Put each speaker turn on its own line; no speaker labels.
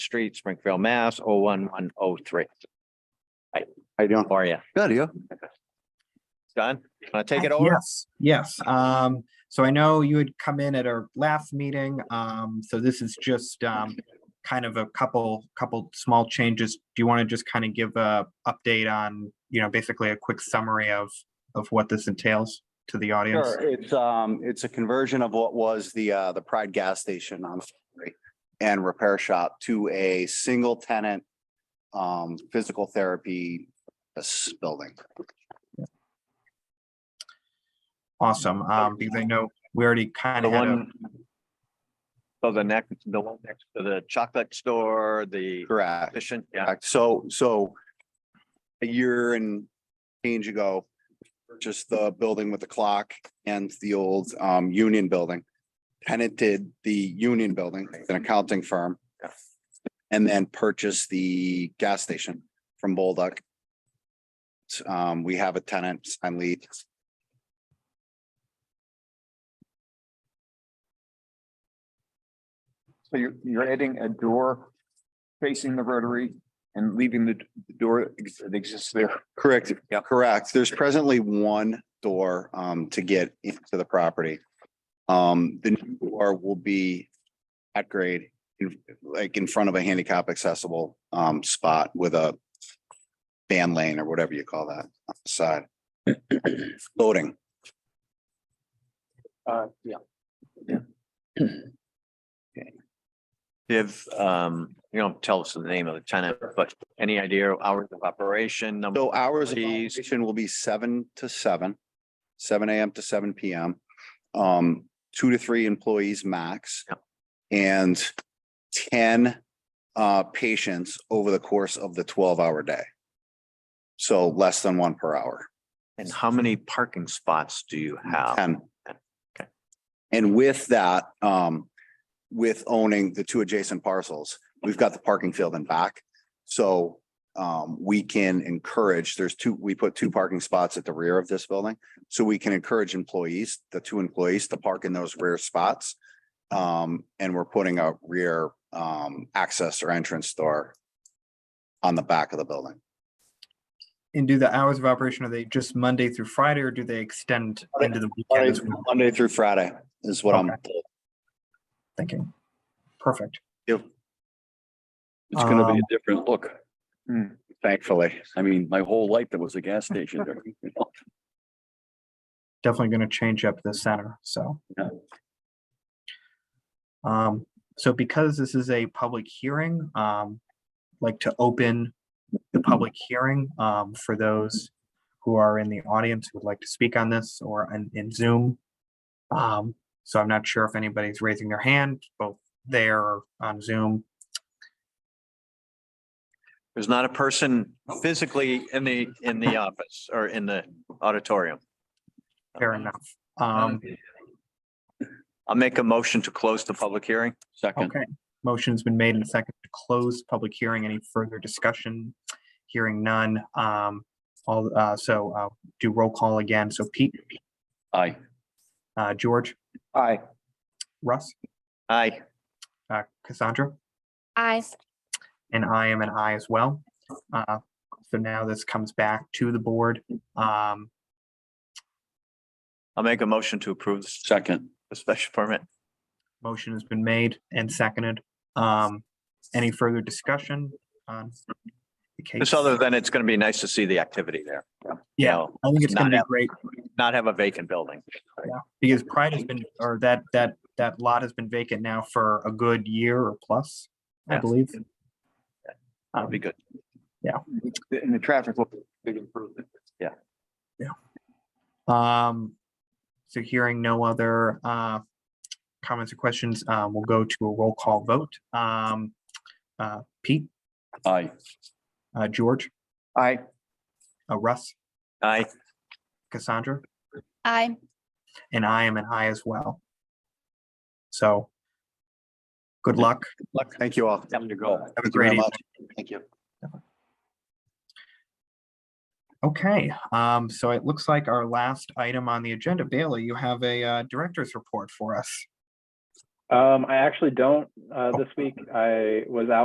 Street, Springfield, Mass. Oh, one, one, oh, three.
How you doing?
How are you?
Good, you?
Don, want to take it
Uh,
over?
Yes, yes. Um, so I know you had come in at our last meeting. Um, so this is just, um, kind of a couple, couple small changes. Do you want to just kind of give a update on, you know, basically a quick summary of, of what this entails to the audience?
Sure, it's, um, it's a conversion of what was the, uh, the Pride gas station on Ferry and repair shop to a single tenant, um, physical therapy uh, s- building.
Awesome. Um, because I know we already kind
The
of had a,
one. So the next, the one next to the chocolate store, the
Correct.
fishing, yeah,
Correct. So, so a year and change ago, purchased the building with the clock and the old um union building. Tenanted the union building, an accounting firm.
Yeah.
And then purchased the gas station from Bolduc. Um, we have a tenant, I'm lead.
So you're, you're adding a door facing the rotary and leaving the d- the door ex- that exists there.
Correct, correct. There's presently one door um to get into the property. Um, the new door will be at grade, in- like in front of a handicap accessible um spot with a van lane or whatever you call that on the side. Loading.
Uh, yeah.
if, um, you don't tell us the name of the tenant, but any idea hours of operation? number-
So hours of
Please.
operation will be seven to seven, seven AM to seven PM. Um, two to three employees max.
Yep.
And ten uh patients over the course of the twelve hour day. So less than one per hour,
And how many parking spots do you have?
ten.
Oh. Okay.
And with that, um, with owning the two adjacent parcels, we've got the parking field in back. So um, we can encourage, there's two, we put two parking spots at the rear of this building. So we can encourage employees, the two employees to park in those rear spots. Um, and we're putting a rear um, access or entrance door on the back of the building.
and do the hours of operation, are they just Monday through Friday or do they extend
Monday-
into the weekend as well?
Monday through Friday is what I'm,
Thinking. Perfect.
It's gonna be
Um,
a different look.
thankfully.
I mean, my whole life there was a gas station there. you know?
definitely gonna change up the center, so.
Yeah.
Um, so because this is a public hearing, um, like to open the public hearing, um, for those who are in the audience who would like to speak on this or in, in Zoom. Um, so I'm not sure if anybody's raising their hand, both there or on Zoom.
There's not a person physically in the, in the office or in the auditorium.
Fair enough. Um,
I'll make a motion to close the public hearing.
Second,
Okay, motion's been made and second to close public hearing. Any further discussion? Hearing none. Um, all, uh, so, uh, do roll call again. So Pete,
aye.
uh, George,
Aye.
Russ,
Aye.
uh, Cassandra,
Aye.
and I am an I as well. Uh, so now this comes back to the board. Um,
I'll make a motion to approve this-
Second,
the special permit.
motion has been made and seconded. Um, any further discussion on the case?
Just other than it's going to be nice to see the activity there. you
Yeah,
know,
I think it's gonna
Not
be
out.
great.
Not have a vacant building.
Because Pride has been, or that, that, that lot has been vacant now for a good year or plus, I
Yeah.
believe.
That'd be good.
And the traffic will be a big improvement.
Um, so hearing no other, uh, comments or questions, uh, we'll go to a roll call vote. Um, uh, Pete,
aye.
uh, George,
Aye.
uh, Russ,
Aye.
Cassandra,
Aye.
and I am an I as well. So good luck.
Thank you all.
Time to go.
Have a
Thank you very
great evening.
much. Thank you.
Okay, um, so it looks like our last item on the agenda, Bailey, you have a, uh, director's report for us.
Um, I actually don't, uh, this week. I was out